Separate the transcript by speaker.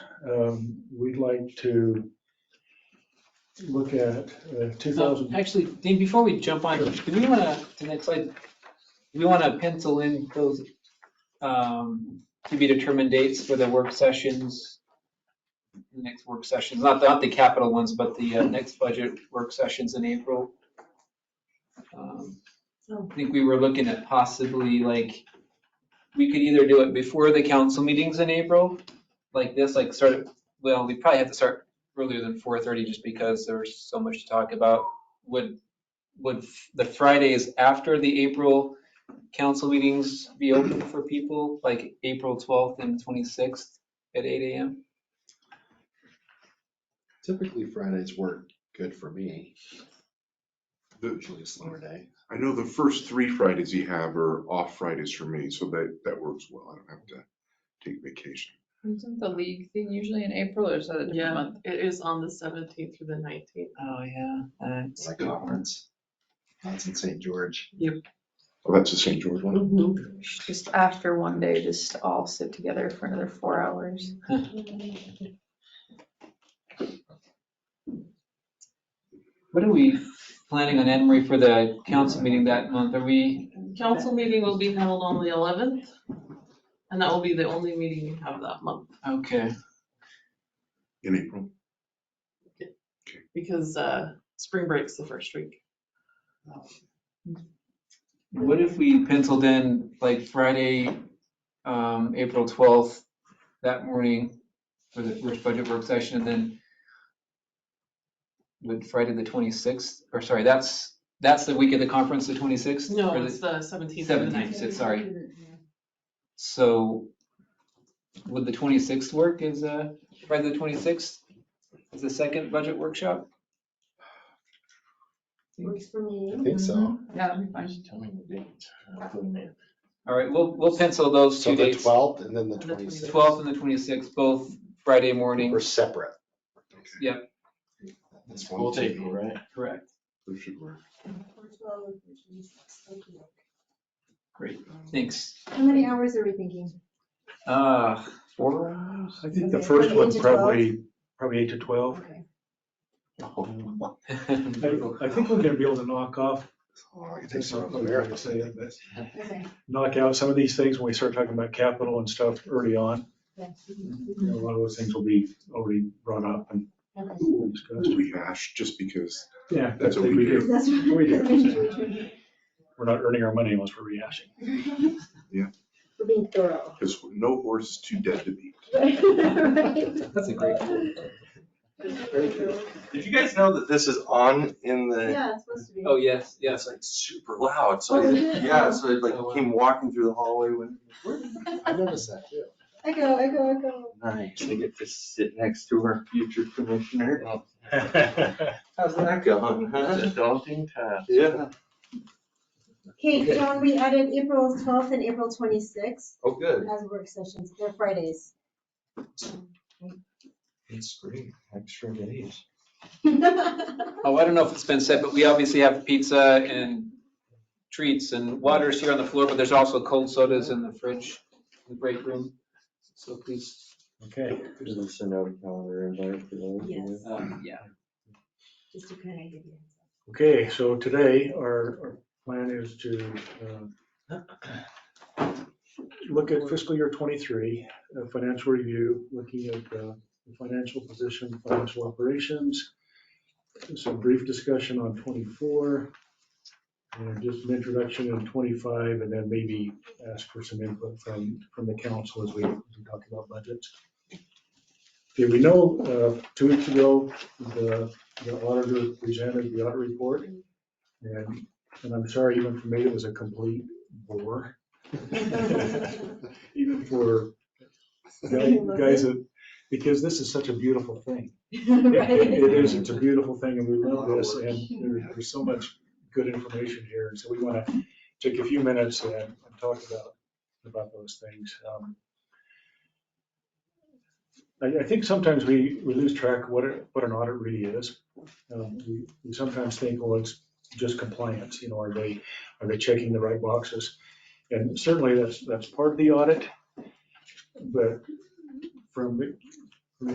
Speaker 1: um, we'd like to look at uh,
Speaker 2: So
Speaker 1: 2000,
Speaker 2: Actually, Dean, before we jump on, do we want to, the next slide, do we want to pencil in those um, to be determined dates for the work sessions? The Next work sessions, not, not the capital ones, but the uh, next budget work sessions in April. Um,
Speaker 3: Oh.
Speaker 2: I think we were looking at possibly like, we could either do it before the council meetings in April, like this, like sort of, well, we probably have to start earlier than 4:30 just because there's so much to talk about. Would, would the Fridays after the April council meetings be open for people, like April 12th and 26th at 8 AM?
Speaker 4: Typically Fridays work good for me. Usually a slower day.
Speaker 5: I know the first three Fridays you have are off Fridays for me, so that, that works well. I don't have to take vacation.
Speaker 6: Isn't the league thing usually in April or is that a different
Speaker 3: Yeah,
Speaker 6: month?
Speaker 3: it is on the seventeenth through the nineteenth.
Speaker 2: Oh, yeah.
Speaker 4: It's like conference. That's in St. George.
Speaker 5: Oh, that's the St. George one.
Speaker 6: Just after one day, just all sit together for another four hours.
Speaker 7: Mm-hmm.
Speaker 2: What are we planning on, Anne Marie, for the council meeting that month? Are we,
Speaker 3: Council meeting will be held on the eleventh, and that will be the only meeting we have that month,
Speaker 2: okay,
Speaker 5: In April.
Speaker 3: because, uh, spring break's the first week.
Speaker 2: what if we penciled in like Friday, um, April 12th, that morning for the first budget work session and then would Friday the 26th, or sorry, that's, that's the week of the conference, the 26th?
Speaker 3: No,
Speaker 2: or the-
Speaker 3: it's the seventeenth through the
Speaker 2: 17th,
Speaker 3: nineteenth.
Speaker 2: so sorry. So would the 26th work is, uh, Friday the 26th is the second budget workshop?
Speaker 7: Works for me.
Speaker 4: I think so.
Speaker 6: Yeah, that'd be fun.
Speaker 4: Just Tell me the date. I'll put it in.
Speaker 2: All right, we'll, we'll pencil those
Speaker 4: So
Speaker 2: two
Speaker 4: the
Speaker 2: dates,
Speaker 4: twelfth and then the
Speaker 3: And the
Speaker 4: twenty-sixth.
Speaker 2: 12th and the 26th, both Friday morning.
Speaker 4: We're separate.
Speaker 2: Yep.
Speaker 4: That's one
Speaker 8: We'll take
Speaker 4: thing.
Speaker 8: it, right?
Speaker 2: Correct.
Speaker 5: That should work.
Speaker 2: Thanks.
Speaker 7: How many hours are we thinking?
Speaker 2: Uh,
Speaker 1: four, I think the
Speaker 7: Okay,
Speaker 1: first
Speaker 7: from eight
Speaker 1: one
Speaker 7: to
Speaker 1: probably, probably 8 to 12.
Speaker 7: Okay.
Speaker 4: Oh,
Speaker 1: I I think we're gonna be able to knock off,
Speaker 4: I could take
Speaker 1: that's
Speaker 4: some
Speaker 1: not
Speaker 4: of
Speaker 1: the way to
Speaker 4: America.
Speaker 1: say it, but
Speaker 7: Okay.
Speaker 1: knock out some of these things when we start talking about capital and stuff early on.
Speaker 7: Yeah.
Speaker 1: You know, A lot of those things will be already brought up and
Speaker 7: Mm-hmm. Okay.
Speaker 1: discussed.
Speaker 5: We hash just because
Speaker 1: Yeah,
Speaker 5: That's what
Speaker 1: I think
Speaker 5: we
Speaker 1: do.
Speaker 7: That's what-
Speaker 1: We do. We're not earning our money unless we're rehashing.
Speaker 5: Yeah.
Speaker 7: We're being thorough.
Speaker 5: because no horse is too dead to beat.
Speaker 7: Right?
Speaker 2: that's a great.
Speaker 8: Did you guys know that this is on in the,
Speaker 7: Yeah, it's supposed to be.
Speaker 2: Oh, yes,
Speaker 8: yeah,
Speaker 2: yes.
Speaker 8: it's like super loud, so,
Speaker 7: Oh,
Speaker 8: I-
Speaker 7: yeah.
Speaker 8: yeah, so I
Speaker 2: Oh, wow.
Speaker 8: like came walking through the hallway when.
Speaker 4: I noticed that too.
Speaker 7: Echo, echo, echo.
Speaker 8: Nice, I get to sit next to our future commissioner. How's that going, huh? daunting task. Yeah,
Speaker 7: Okay, John, we added April 12th and April 26th
Speaker 8: oh, good.
Speaker 7: as work sessions. They're Fridays.
Speaker 4: It's great. Extra days.
Speaker 2: Oh, I don't know if it's been said, but we obviously have pizza and treats and waters here on the floor, but there's also cold sodas in the fridge, in the break room. So please,
Speaker 1: Okay.
Speaker 8: Just gonna send out a calendar invite for those.
Speaker 7: Yes,
Speaker 2: um, yeah.
Speaker 7: just to kind of give you.
Speaker 1: Okay, so today, our, our plan is to uh, look at fiscal year twenty-three, uh, financial review, looking at uh, the financial position, financial operations, some brief discussion on twenty-four, and just an introduction in twenty-five, and then maybe ask for some input from, from the council as we as we talk about budgets. Okay, we know, uh, two weeks ago, the the auditor presented the audit report. And, and I'm sorry, even for me, it was a complete bore. Even for guy- guys that, because this is such a beautiful thing. It- It it is, it's a beautiful thing and we love this and there- there's so much good information here. And so we want to take a few minutes and and talk about, about those things. Um, I, I think sometimes we, we lose track of what, a- what an audit really is. Um, We we sometimes think, well, it's just compliance, you know, are they, are they checking the right boxes? And certainly that's, that's part of the audit. But from, the-